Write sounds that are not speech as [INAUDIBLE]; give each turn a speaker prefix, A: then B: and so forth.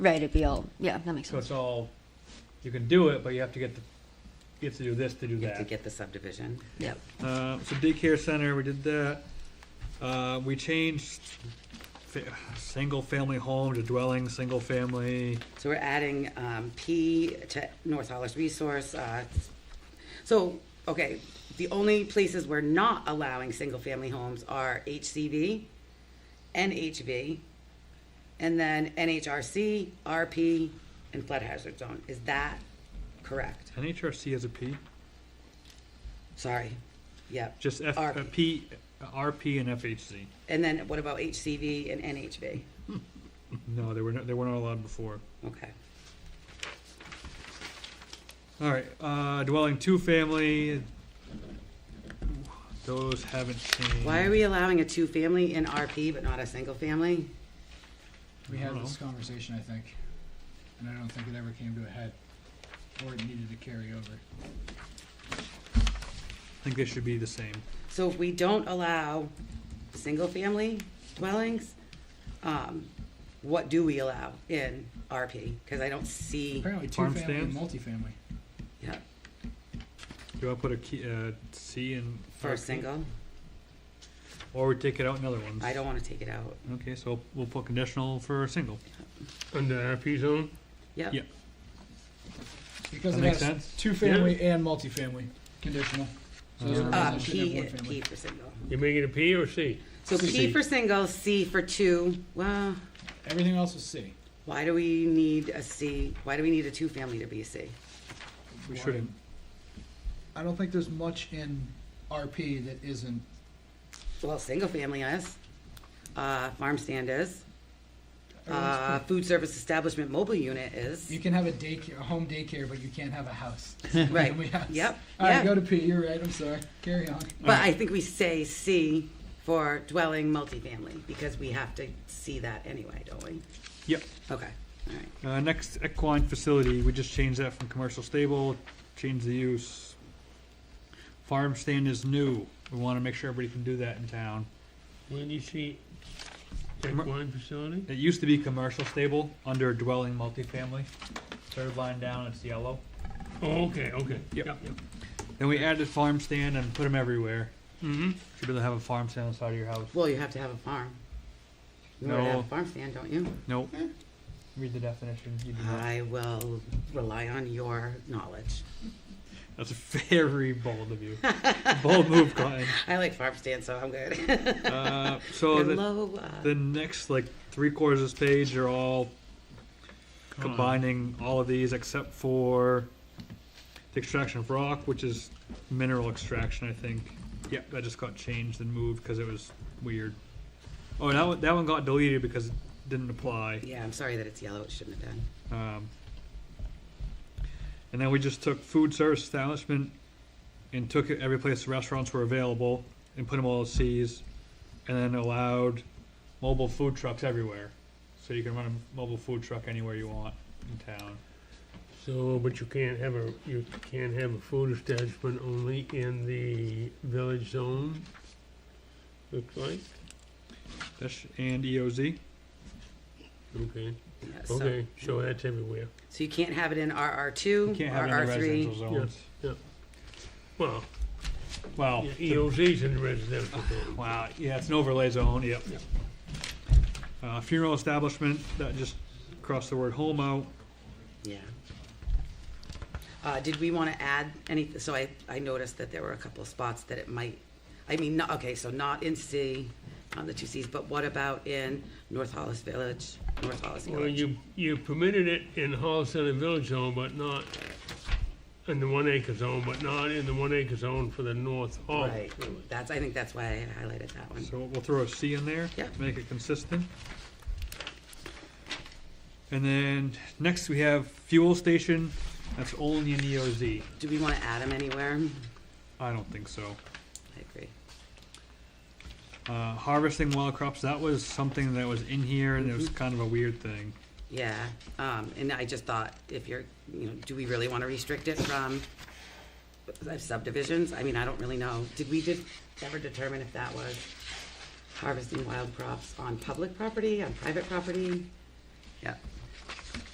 A: Right, it'd be all, yeah, that makes
B: So
A: sense.
B: it's all, you can do it, but you have to get the, you have to do this to do
C: You have to
B: that.
C: get the subdivision.
A: Yep.
B: Uh, so daycare center, we did that. Uh, we changed fa- single-family home to dwelling, single-family.
C: So we're adding um, P to North Hollis Resource. uh, So, okay, the only places we're not allowing single-family homes are HCV, NHV, and then NHRC, RP, and flood hazard zone. Is that correct?
B: NHRC has a P,
C: Sorry. Yep.
B: just F,
C: RP.
B: uh, P, RP and FHC.
C: And then what about HCV and NHV?
B: No, they were, not- they weren't allowed before.
C: Okay.
B: All right, uh, dwelling two-family, those haven't changed.
C: Why are we allowing a two-family in RP but not a single-family?
D: We
B: I don't
D: had this
B: know.
D: conversation, I think, and I don't think it ever came to a head, or it needed to carry over.
B: I think they should be the same.
C: So if we don't allow single-family dwellings, um, what do we allow in RP? Because I don't see,
D: Apparently,
B: Farm
D: two-family and multifamily.
C: yeah,
B: Do I put a key, uh, C in?
C: for a
B: RP?
C: single,
B: Or we take it out in other ones?
C: I don't want to take it out.
B: Okay, so we'll put conditional for a single.
E: Under RP zone?
C: Yep.
B: Yeah.
D: Because
B: That
D: it
B: makes
D: has
B: sense.
D: two-family and multifamily, conditional. So there's
B: Uh,
D: no reason
C: Uh,
D: it should have
C: P,
D: one
C: P
D: family.
C: for single.
E: You make it a P or a C?
C: So P
B: C.
C: for single, C for two, well,
D: Everything else is C.
C: why do we need a C? Why do we need a two-family to be a C?
B: We
D: Why?
B: shouldn't.
D: I don't think there's much in RP that isn't,
C: Well, single-family is, uh, farm stand is, uh,
D: everyone's-
C: food service establishment mobile unit is,
D: you can have a daycare, a home daycare, but you can't have a house.
C: [LAUGHS] right,
D: [LAUGHS] We have-
C: yep,
D: All right,
C: yeah.
D: go to P, you're right, I'm sorry, carry on.
C: But I think we say C for dwelling multifamily, because we have to see that anyway, don't we?
B: Yep.
C: Okay, all right.
B: Uh, next, equine facility, we just changed that from commercial stable, changed the use. Farm stand is new. We wanna make sure everybody can do that in town.
E: When you see
B: Mer-
E: equine facility?
B: It used to be commercial stable under dwelling multifamily. Third line down, it's yellow.
E: Oh, okay, okay.
B: Yep. Then we added farm stand and put them everywhere.
E: Mm-hmm.
B: Should be able to have a farm stand on the side of your house.
C: Well, you have to have a farm. You already have
B: No.
C: a farm stand, don't you?
B: Nope. Read the definition. You do not.
C: I will rely on your knowledge.
B: That's [LAUGHS] very bold of you. bold move, Cotton.
C: I like farm stands, so I'm good.
B: Uh, so
C: [LAUGHS]
B: the,
C: They're low, uh,
B: the next like three quarters of this page are all combining all of these except for the extraction of rock, which is mineral extraction, I think. Yep, that just got changed and moved because it was weird. Oh, and that one, that one got deleted because it didn't apply.
C: yeah, I'm sorry that it's yellow, it shouldn't have done.
B: Um, and then we just took food service establishment and took it every place restaurants were available and put them all as C's, and then allowed mobile food trucks everywhere. So you can run a mobile food truck anywhere you want in town.
E: So, but you can't have a, you can't have a food establishment only in the village zone, looks like?
B: That's and E EOZ.
E: Okay,
C: Yeah, so-
E: okay, so that's everywhere.
C: So you can't have it in RR
B: You
C: two,
B: can't have it in
C: RR
B: the
C: three.
B: residential zones.
E: Well,
B: Well,
E: yeah, E
B: the-
E: EOZ's in the residential zone.
B: wow, yeah, it's an overlay zone. Yep.
E: Yep.
B: Uh, funeral establishment that just crossed the word home out.
C: Yeah. Uh, did we want to add any, so I, I noticed that there were a couple of spots that it might, I mean, not, okay, so not in C, on the two Cs, but what about in North Hollis Village, North Hollis
E: Well,
C: Village?
E: you, you permitted it in Hall Center Village Zone, but not in the one acre zone, but not in the one acre zone for the North Hall
C: Right,
E: Village.
C: that's, I think that's why I highlighted that one.
B: So we'll throw a C in there.
C: Yeah.
B: to Make it consistent. And then next we have fuel station, that's only in EOZ.
C: Do we want to add them anywhere?
B: I don't think so.
C: I agree.
B: Uh, harvesting wild crops, that was something that was in here and it was kind of a weird thing.
C: Yeah, um, and I just thought, if you're, you know, do we really want to restrict it from subdivisions? I mean, I don't really know. Did we did, ever determine if that was harvesting wild crops on public property, on private property? Yeah,